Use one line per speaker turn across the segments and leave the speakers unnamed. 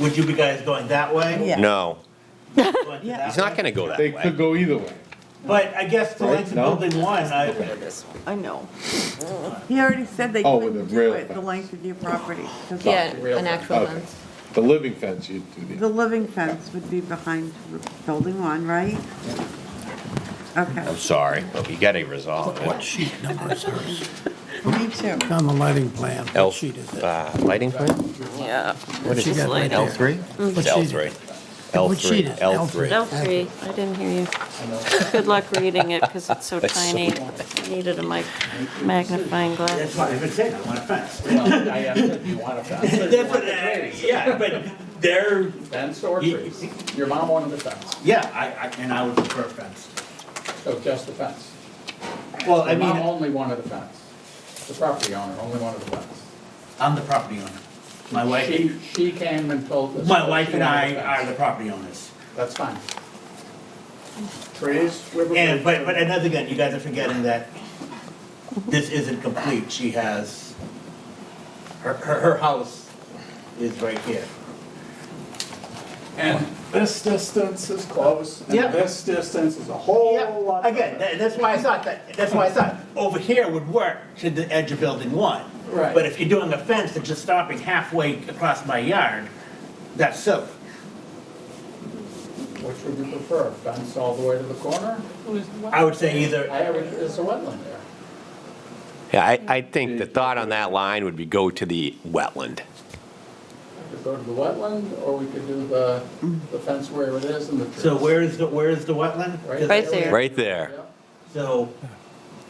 Would you be guys going that way?
Yeah.
No,
Going to
Yeah.
that
he's not
way?
gonna go that
They could
way.
go either way.
But I guess the
Right?
length of
No?
building one, I,
I know. He already said they
Oh, with
couldn't
the
do
rail
it, the
fence.
length of your property. 'cause
Yeah, an actual
Okay.
fence.
The living fence, you'd do the.
The living fence would be behind building one, right? Okay,
I'm sorry, but we gotta resolve it.
sheet number is hers?
me too.
On the lighting plan,
L,
what sheet is it?
uh, lighting plan?
Yeah.
What is
She's
it?
got right there.
L three? It's L three. L
What
three,
sheet is it?
L three.
L three, I didn't hear you. Good luck reading it, because it's so
That's so
tiny. I Needed a mic- magnifying
that's
glass.
why I've been saying, I want a fence.
I asked if you want a fence.
That's what I- Yeah, but they're,
Fence or trees? Your mom wanted a fence,
yeah, I, I, and I would prefer a fence.
so just a fence.
Well, I
Your mom
mean,
only wanted a fence. The property owner only wanted a fence.
I'm the property owner. My wife,
She, she came and told us.
my
that
wife
she
and I
wanted a
are
fence.
the property owners.
That's fine. Trees, river.
And, but, but another thing, you guys are forgetting that this isn't complete, she has, her, her, her house is right here.
And this distance is close, and
Yeah.
this distance is a whole lot.
Again,
better.
tha- that's why I thought that, that's why I thought, over here would work to the edge of building one.
Right.
But if you're doing a fence that's just stopping halfway across my yard, that's silly.
Which would you prefer, fence all the way to the corner?
I would say either,
I, would- there's a wetland there.
Yeah, I, I think the thought on that line would be go to the wetland.
We could go to the wetland, or we could do the, the fence where it is and the trees.
so where is the, where is the wetland?
Right there.
Right there,
Yeah.
So,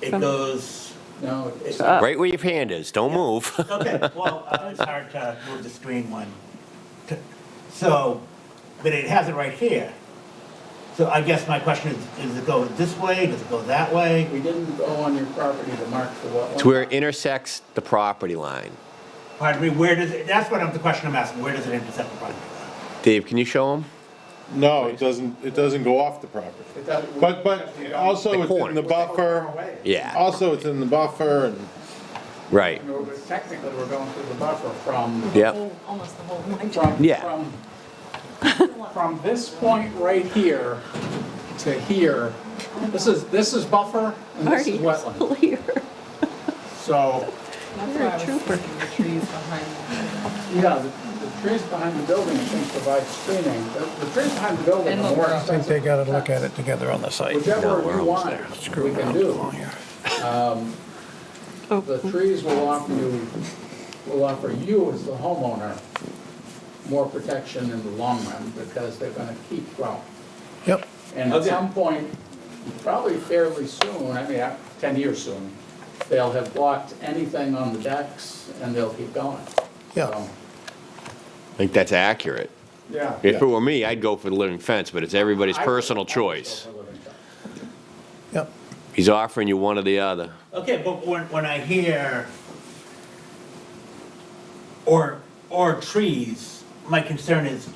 it goes,
No, it's-
Uh,
right where your hand is, don't move.
Okay, well, uh, it's hard to move the screen one. to- So, but it has it right here. So I guess my question is, does it go this way, does it go that way?
we didn't go on your property to mark the wetland.
It's where it intersects the property line.
Pardon me, where does it, that's what I'm, the question I'm asking, where does it intersect the property?
Dave, can you show him?
No, it doesn't, it doesn't go off the property.
It doesn't-
But, but also
The
it's in
corner.
the buffer.
Yeah,
Also, it's in the buffer and
right,
No, but Technically, we're going through the buffer from,
yep,
Almost the whole line.
from.
Yeah.
from- From this point right here to here, this is, this is buffer and this
Marty,
is
you're
wetland.
still here.
So,
You're a trooper.
yeah, the, the trees behind the building, I think, provide screening. The, the trees behind the building are more
I think
expensive.
they gotta look at it together on the site.
Whichever you want, we
Screw
can
around
do. Um,
along here.
The trees will offer you, will offer you as the homeowner more protection in the long run because they're gonna keep growing.
Yep,
And at some point, probably fairly soon, I mean, uh, ten years soon, they'll have blocked anything on the decks and they'll keep going.
yeah.
So,
I think that's accurate.
Yeah.
If it were me, I'd go for the living fence, but it's everybody's personal choice.
Yep.
He's offering you one or the other.
Okay, but when, when I hear or, or trees, my concern is,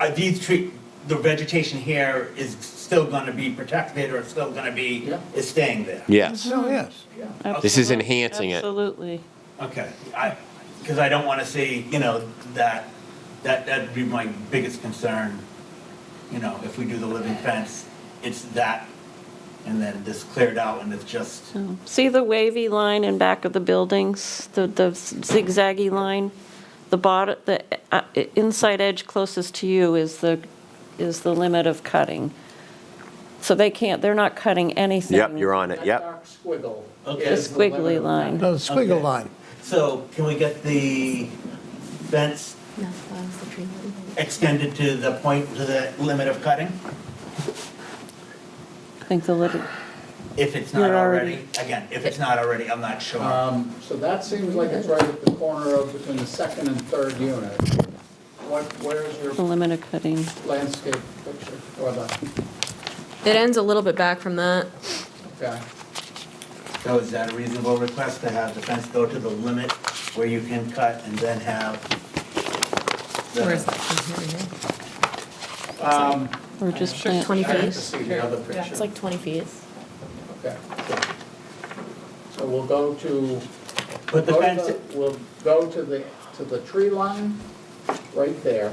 are these tree, the vegetation here is still gonna be protected or still gonna be,
Yeah.
is staying there?
Yes,
Oh, yes.
Yeah.
this is enhancing it.
Absolutely.
Okay, I, because I don't want to see, you know, that, that, that'd be my biggest concern. You know, if we do the living fence, it's that, and then this cleared out and it's just,
See the wavy line in back of the buildings, the, the zigzaggy line? The bottom, the uh, inside edge closest to you is the, is the limit of cutting. So they can't, they're not cutting anything.
Yep, you're on it,
That
yep.
dark squiggle
Okay.
is the
Squiggly
limit of
line.
that.
The squiggle
Okay.
line.
so can we get the fence
No, that was the tree.
extended to the point, to the limit of cutting?
I think the little,
If it's not
You're already-
already, again, if it's not already, I'm not sure.
Um, so that seems like it's right at the corner of between the second and third unit. What, where's your
the limit of cutting.
landscape picture or the,
It ends a little bit back from that.
okay.
So is that a reasonable request to have the fence go to the limit where you can cut and then have? the-
Where's that? From here to here.
Um,
Or just
Sure,
plant,
Twenty
I have to
feet.
see the other picture.
It's like twenty feet.
Okay. So we'll go to,
Put the
go to
fence,
the- we'll go to the, to the tree line, right there.